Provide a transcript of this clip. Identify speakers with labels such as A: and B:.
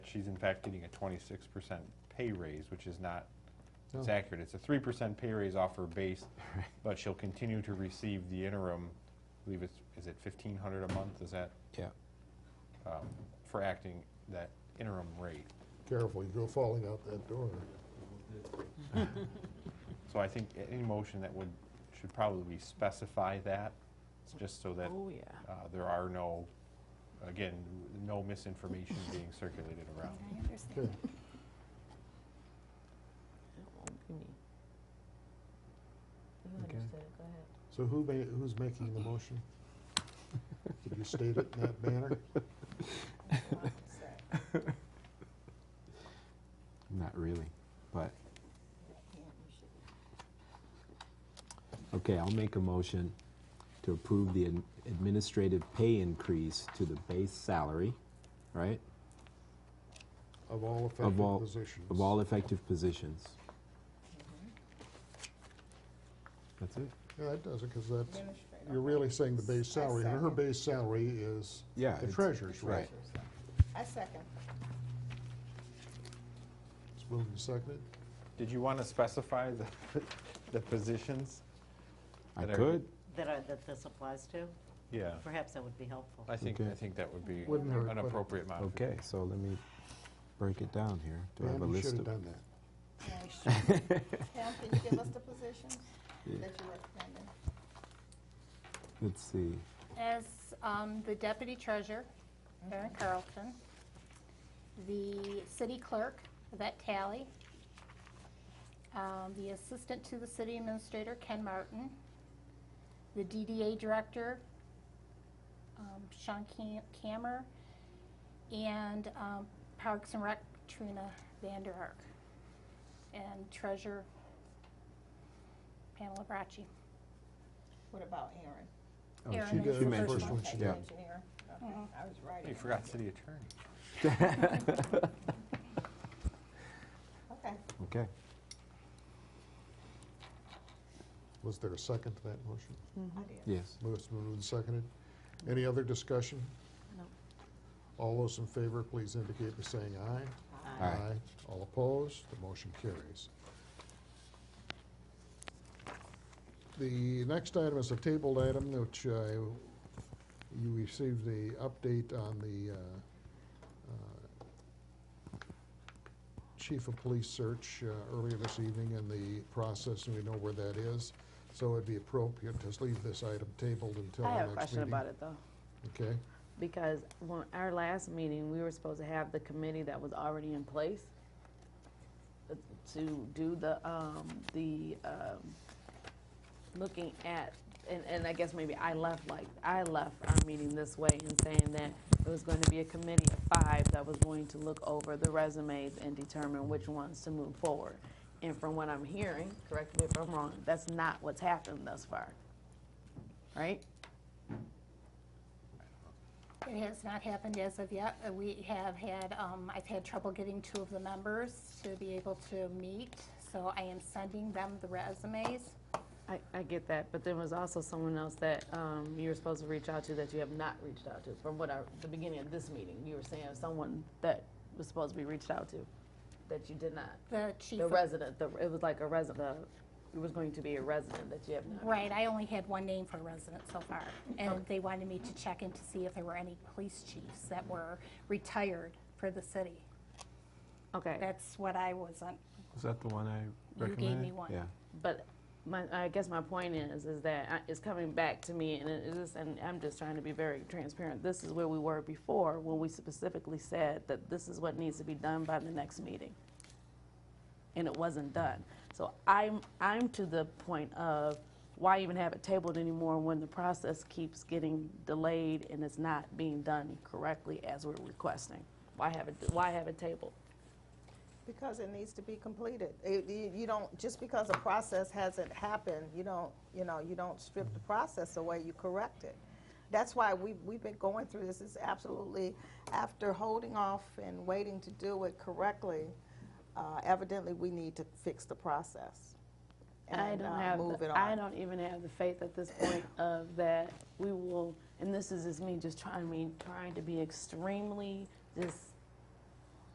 A: she's in fact getting a twenty-six percent pay raise, which is not, it's
B: No.
A: accurate. It's a three percent pay raise off her base, but she'll continue to receive the interim, I believe it's, is it fifteen hundred a month, is that,
B: Yeah.
A: um, for acting that interim rate?
C: Careful, you go falling out that door.
A: So I think a- any motion that would, should probably specify that, just so that
D: Oh, yeah.
A: uh, there are no, again, no misinformation being circulated around.
E: I understand.
D: You
B: Okay.
D: understood it, go ahead.
C: So who ma, who's making the motion? Could you state it in that manner?
B: Not really, but, okay, I'll make a motion to approve the ad- administrative pay increase to the base salary, right?
C: Of all
B: Of all-
C: affected positions?
B: Of all effective positions. That's it?
C: Yeah, that does it, because that's, you're really saying the base salary, and her
E: second.
C: base salary is
B: Yeah.
C: the
B: it's-
C: treasurer's rate.
B: Right.
E: I second.
C: It's moved and seconded.
A: Did you want to specify the, the positions?
B: I
A: That are-
B: could,
F: That I, that this applies to?
A: Yeah,
F: Perhaps that would be helpful.
A: I think, I
B: Okay.
A: think that would be
C: Wouldn't hurt,
A: an
C: but-
A: appropriate amount.
B: okay, so let me break it down here. Do I have a
C: Man, you
B: list
C: should
B: of?
C: have done that.
E: No, we shouldn't. Pam, can you give us the positions that you recommended?
B: Let's see,
G: as um, the deputy treasurer, Karen Carlton, the city clerk, Yvette Tally, um, the assistant to the city administrator, Ken Martin, the DDA director, um, Sean Cam- Cammer, and um, Parks and Rec, Trina Vander Ark, and treasurer, Pamela Bracci.
E: What about Aaron?
B: oh,
G: Erin
B: she,
G: is
B: she
G: the first
B: mentioned.
C: one.
E: Okay, you
B: Yeah.
E: mentioned Aaron. Okay,
D: Mm-hmm.
E: I was right.
A: You forgot city attorney.
E: Okay,
B: Okay,
C: Was there a second to that motion?
E: I did.
B: yes.
C: Most moved and seconded. Any other discussion?
F: No.
C: All those in favor, please indicate by saying aye.
B: Aye.
C: All opposed, the motion carries. The next item is a tabled item, which uh, you received the update on the uh, uh, chief of police search uh, earlier this evening and the process, and we know where that is. So it'd be appropriate to leave this item tabled until
D: I
C: our
D: have a
C: next
D: question
C: meeting.
D: about it, though,
C: Okay,
D: because when our last meeting, we were supposed to have the committee that was already in place uh, to do the, um, the, um, looking at, and, and I guess maybe I left like, I left our meeting this way and saying that it was going to be a committee of five that was going to look over the resumes and determine which ones to move forward. And from what I'm hearing, correct me if I'm wrong, that's not what's happened thus far, right?
G: It has not happened as of yet. Uh, We have had, um, I've had trouble getting two of the members to be able to meet, so I am sending them the resumes.
D: I, I get that, but there was also someone else that um, you were supposed to reach out to that you have not reached out to. From what I, the beginning of this meeting, you were saying someone that was supposed to be reached out to, that you did not.
G: The chief,
D: The
G: of-
D: resident, the, it was like a resident, it was going to be a resident that you have not.
G: right, I only had one name for a resident so far, and they wanted me to check in to see if there were any police chiefs that were retired for the city.
D: Okay,
G: That's what I wasn't,
B: Is that the one I
G: you gave me one.
B: Yeah.
D: but my, I guess my point is, is that I- it's coming back to me, and it is, and I'm just trying to be very transparent. This is where we were before, when we specifically said that this is what needs to be done by the next meeting. and it wasn't done. So I'm, I'm to the point of, why even have it tabled anymore when the process keeps getting delayed and it's not being done correctly as we're requesting? Why have it, why have it tabled?
E: Because it needs to be completed. It- You you don't, just because a process hasn't happened, you don't, you know, you don't strip the process away, you correct it. That's why we- we've been going through this, is absolutely, after holding off and waiting to do it correctly, uh, evidently, we need to fix the process.
D: I
E: and,
D: don't
E: uh,
D: have, the-
E: Move it on.
D: I don't even have the faith at this point of that we will, and this is just me just trying, me trying to be extremely just